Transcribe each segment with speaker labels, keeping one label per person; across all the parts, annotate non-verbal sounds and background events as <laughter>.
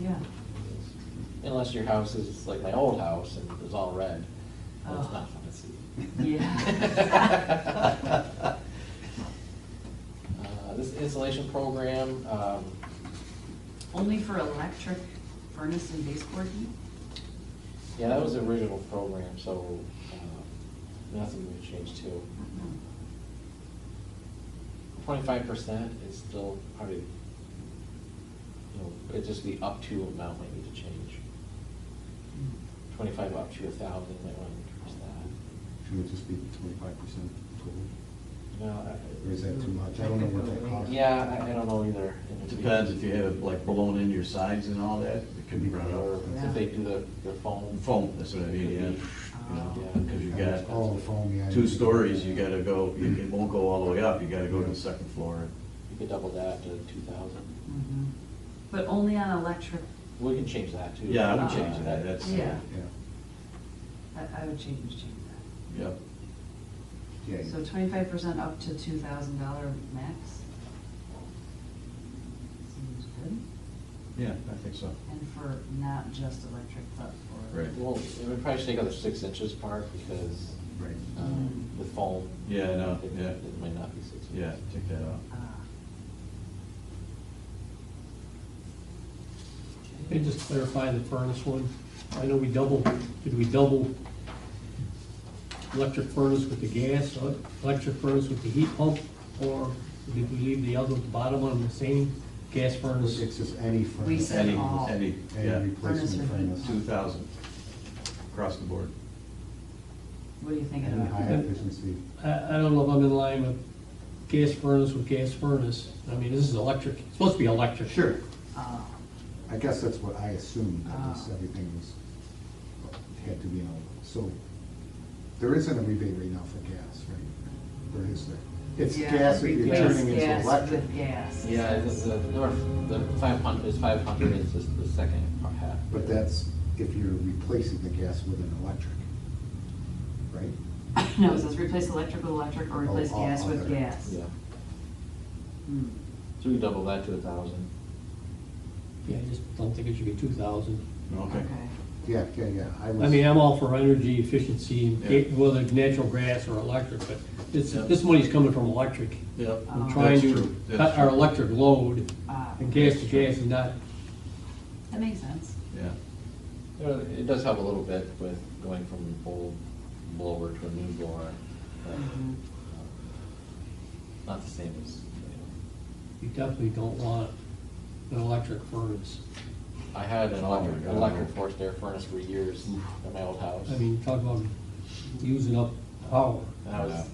Speaker 1: Yeah.
Speaker 2: Unless your house is like my old house and it's all red, that's
Speaker 1: Oh.
Speaker 2: not fun to see.
Speaker 1: Yeah.
Speaker 2: <laughs> Uh, This installation program, um,
Speaker 1: Only for electric furnace and baseboard heat?
Speaker 2: yeah, that was the original program, so uh, nothing would change too. Twenty-five percent is still probably, you know, it'd just be up to amount might need to change. Twenty-five up to a thousand, might want to increase that.
Speaker 3: Should it just be twenty-five percent total?
Speaker 2: No, I-
Speaker 3: Or is that too much? I don't know what that costs.
Speaker 2: Yeah, I, I don't know either.
Speaker 4: It Depends if you have like blown in your sides and all that, it could be brought
Speaker 2: Or
Speaker 4: up.
Speaker 2: if they do the, the foam.
Speaker 4: Foam, that's what I mean, yeah, you know, because you
Speaker 3: Oh,
Speaker 4: got
Speaker 3: foam, yeah.
Speaker 4: two stories, you gotta go, it won't go all the way up, you gotta go to the second floor.
Speaker 2: You could double that to two thousand.
Speaker 1: Mhm. But only on electric,
Speaker 2: We can change that too.
Speaker 4: Yeah, I would change that, that's,
Speaker 1: Yeah.
Speaker 3: Yeah,
Speaker 1: I, I would change, change
Speaker 4: yeah,
Speaker 3: yeah.
Speaker 1: that. So twenty-five percent up to two thousand dollar max? Seems good.
Speaker 4: yeah, I think so.
Speaker 1: And for not just electric, but for.
Speaker 4: Right.
Speaker 2: Well, we probably should take out the six inches part because
Speaker 3: Right.
Speaker 2: um, with foam.
Speaker 4: Yeah, no,
Speaker 2: it-
Speaker 4: yeah.
Speaker 2: It might not be six inches.
Speaker 4: Yeah, take that out.
Speaker 1: Ah.
Speaker 5: Can you just clarify the furnace one? I know we doubled, did we double electric furnace with the gas, or electric furnace with the heat pump? Or did we leave the other, the bottom one the same, gas furnace?
Speaker 3: It's just any furnace.
Speaker 1: We said
Speaker 4: Any,
Speaker 1: all.
Speaker 4: any, yeah,
Speaker 3: Any
Speaker 1: Furnace or
Speaker 3: replacement furnace.
Speaker 4: two thousand, across the board.
Speaker 1: What are you thinking
Speaker 3: Any high
Speaker 1: about?
Speaker 3: efficiency.
Speaker 5: I, I don't know if I'm in line with gas furnace with gas furnace. I mean, this is electric, it's supposed to be electric.
Speaker 3: Sure.
Speaker 1: Ah,
Speaker 3: I guess that's what I assumed, that this,
Speaker 1: Ah.
Speaker 3: everything was, had to be on. So there isn't a rebate right now for gas, right? Or is there? It's
Speaker 1: yeah,
Speaker 3: gas if you're
Speaker 1: replace
Speaker 3: turning into
Speaker 1: gas
Speaker 3: electric.
Speaker 1: with gas.
Speaker 2: Yeah, the, the, the north, the five hundred, is five hundred is just the second part half.
Speaker 3: But that's if you're replacing the gas with an electric, right?
Speaker 1: No, it says replace electric with electric or
Speaker 3: Oh,
Speaker 1: replace
Speaker 3: all
Speaker 1: gas with
Speaker 3: other.
Speaker 1: gas.
Speaker 2: Yeah,
Speaker 1: Hmm.
Speaker 2: so we can double that to a thousand.
Speaker 5: Yeah, I just don't think it should be two thousand.
Speaker 4: Okay,
Speaker 1: Okay.
Speaker 3: Yeah, yeah, yeah. was-
Speaker 5: I mean, I'm all for energy efficiency,
Speaker 4: Yeah.
Speaker 5: whether it's natural gas or electric, but this,
Speaker 4: Yeah.
Speaker 5: this money's coming from electric.
Speaker 4: yeah.
Speaker 5: We're
Speaker 1: Oh.
Speaker 5: trying
Speaker 4: That's
Speaker 5: to
Speaker 4: true. That's
Speaker 5: cut our
Speaker 4: true.
Speaker 5: electric load,
Speaker 1: Ah,
Speaker 5: and gas to gas is not,
Speaker 1: That makes sense.
Speaker 4: Yeah,
Speaker 2: You know, It does help a little bit with going from an old blower to a new blower. but,
Speaker 1: Mhm.
Speaker 2: um, Not the same as, you
Speaker 5: you definitely don't want an electric furnace.
Speaker 2: know. I had an
Speaker 4: Oh my
Speaker 2: electric,
Speaker 4: God.
Speaker 2: electric forced air furnace for years
Speaker 4: Oof.
Speaker 2: at my old house.
Speaker 5: I mean, talk about using up power.
Speaker 2: And I was,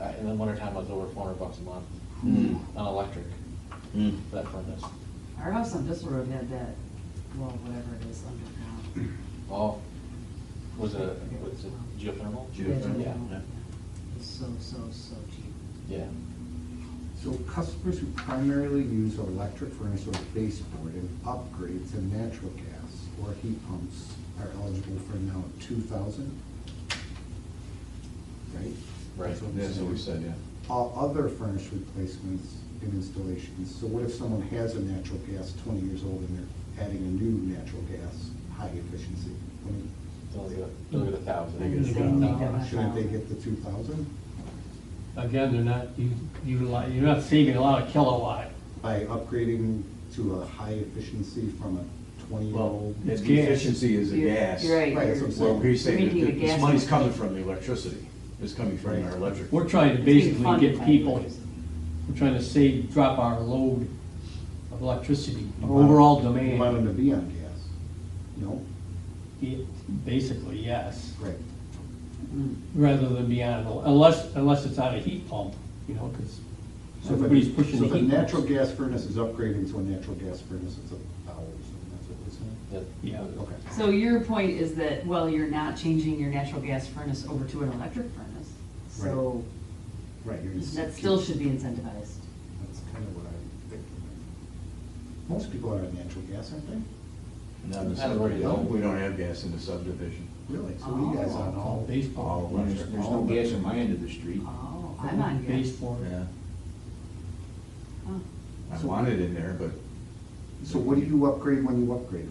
Speaker 2: I- in the wintertime, I was over four hundred bucks a month
Speaker 4: Mm.
Speaker 2: on electric,
Speaker 4: Mm.
Speaker 2: for that furnace.
Speaker 1: Our house on Bissell Road had that, well, whatever it is underground.
Speaker 2: All, was it, was it geothermal?
Speaker 4: Geothermal,
Speaker 2: Yeah.
Speaker 4: yeah.
Speaker 1: It's so, so, so cheap.
Speaker 2: Yeah.
Speaker 3: So customers who primarily use electric furnace or baseboard and upgrade to natural gas or heat pumps are eligible for now two thousand? Right?
Speaker 2: Right.
Speaker 3: That's what we
Speaker 4: that's what we said, yeah.
Speaker 3: All other furnace replacements and installations, so what if someone has a natural gas twenty years old and they're adding a new natural gas, high efficiency? When-
Speaker 2: They'll get, they'll get a
Speaker 4: They get
Speaker 2: thousand.
Speaker 4: a
Speaker 1: They need that
Speaker 5: thousand.
Speaker 1: much
Speaker 3: Shouldn't they
Speaker 1: power.
Speaker 3: get the two thousand
Speaker 5: Again, they're not, you, you, li- you're not saving a lot of kilowatt.
Speaker 3: by upgrading to a high efficiency from a
Speaker 4: Well,
Speaker 3: twenty-year-old?
Speaker 4: the
Speaker 5: It's gas.
Speaker 4: efficiency is the
Speaker 1: You're-
Speaker 4: gas.
Speaker 1: you're Right.
Speaker 3: Right, that's
Speaker 1: you're-
Speaker 3: what I'm
Speaker 4: Well, we say
Speaker 1: You're
Speaker 4: that
Speaker 1: making the
Speaker 4: this
Speaker 1: gas
Speaker 4: money's
Speaker 1: much-
Speaker 4: coming from the electricity, it's coming from our electric.
Speaker 5: We're trying to
Speaker 1: It's being
Speaker 5: basically
Speaker 1: funded
Speaker 5: get
Speaker 1: by
Speaker 5: people,
Speaker 1: electricity.
Speaker 5: we're trying to save, drop our load of electricity,
Speaker 3: You
Speaker 5: our
Speaker 3: want-
Speaker 5: overall
Speaker 3: You want them
Speaker 5: demand.
Speaker 3: to be on gas? No?
Speaker 5: Yeah, Basically, yes.
Speaker 3: Right.
Speaker 1: Hmm.
Speaker 5: rather than be on, a- unless, unless it's on a heat pump, you know, because
Speaker 3: So if a-
Speaker 5: everybody's
Speaker 3: So
Speaker 5: pushing the
Speaker 3: if a
Speaker 5: heat.
Speaker 3: natural
Speaker 5: pumps.
Speaker 3: gas furnace is upgrading to a natural gas furnace, it's a power, so that's what we're
Speaker 2: Yep.
Speaker 5: Yeah.
Speaker 3: saying? Okay.
Speaker 1: So your point is that, well, you're not changing your natural gas furnace over to an electric furnace. So
Speaker 3: Right. you're just-
Speaker 1: that still should be incentivized.
Speaker 3: That's kind of what I think. Most people are on natural gas, aren't they?
Speaker 4: Not in the
Speaker 2: That's where you go.
Speaker 4: subdivision, we don't have gas in the subdivision.
Speaker 3: Really? So you guys
Speaker 1: Oh.
Speaker 3: on
Speaker 5: All
Speaker 3: all,
Speaker 5: baseball,
Speaker 4: All electric.
Speaker 6: There's no gas on my end of the street.
Speaker 1: Oh, I'm on gas.
Speaker 5: baseboard.
Speaker 4: Yeah,
Speaker 1: Huh.
Speaker 4: I want it in there, but
Speaker 3: so what do you upgrade when you upgrade?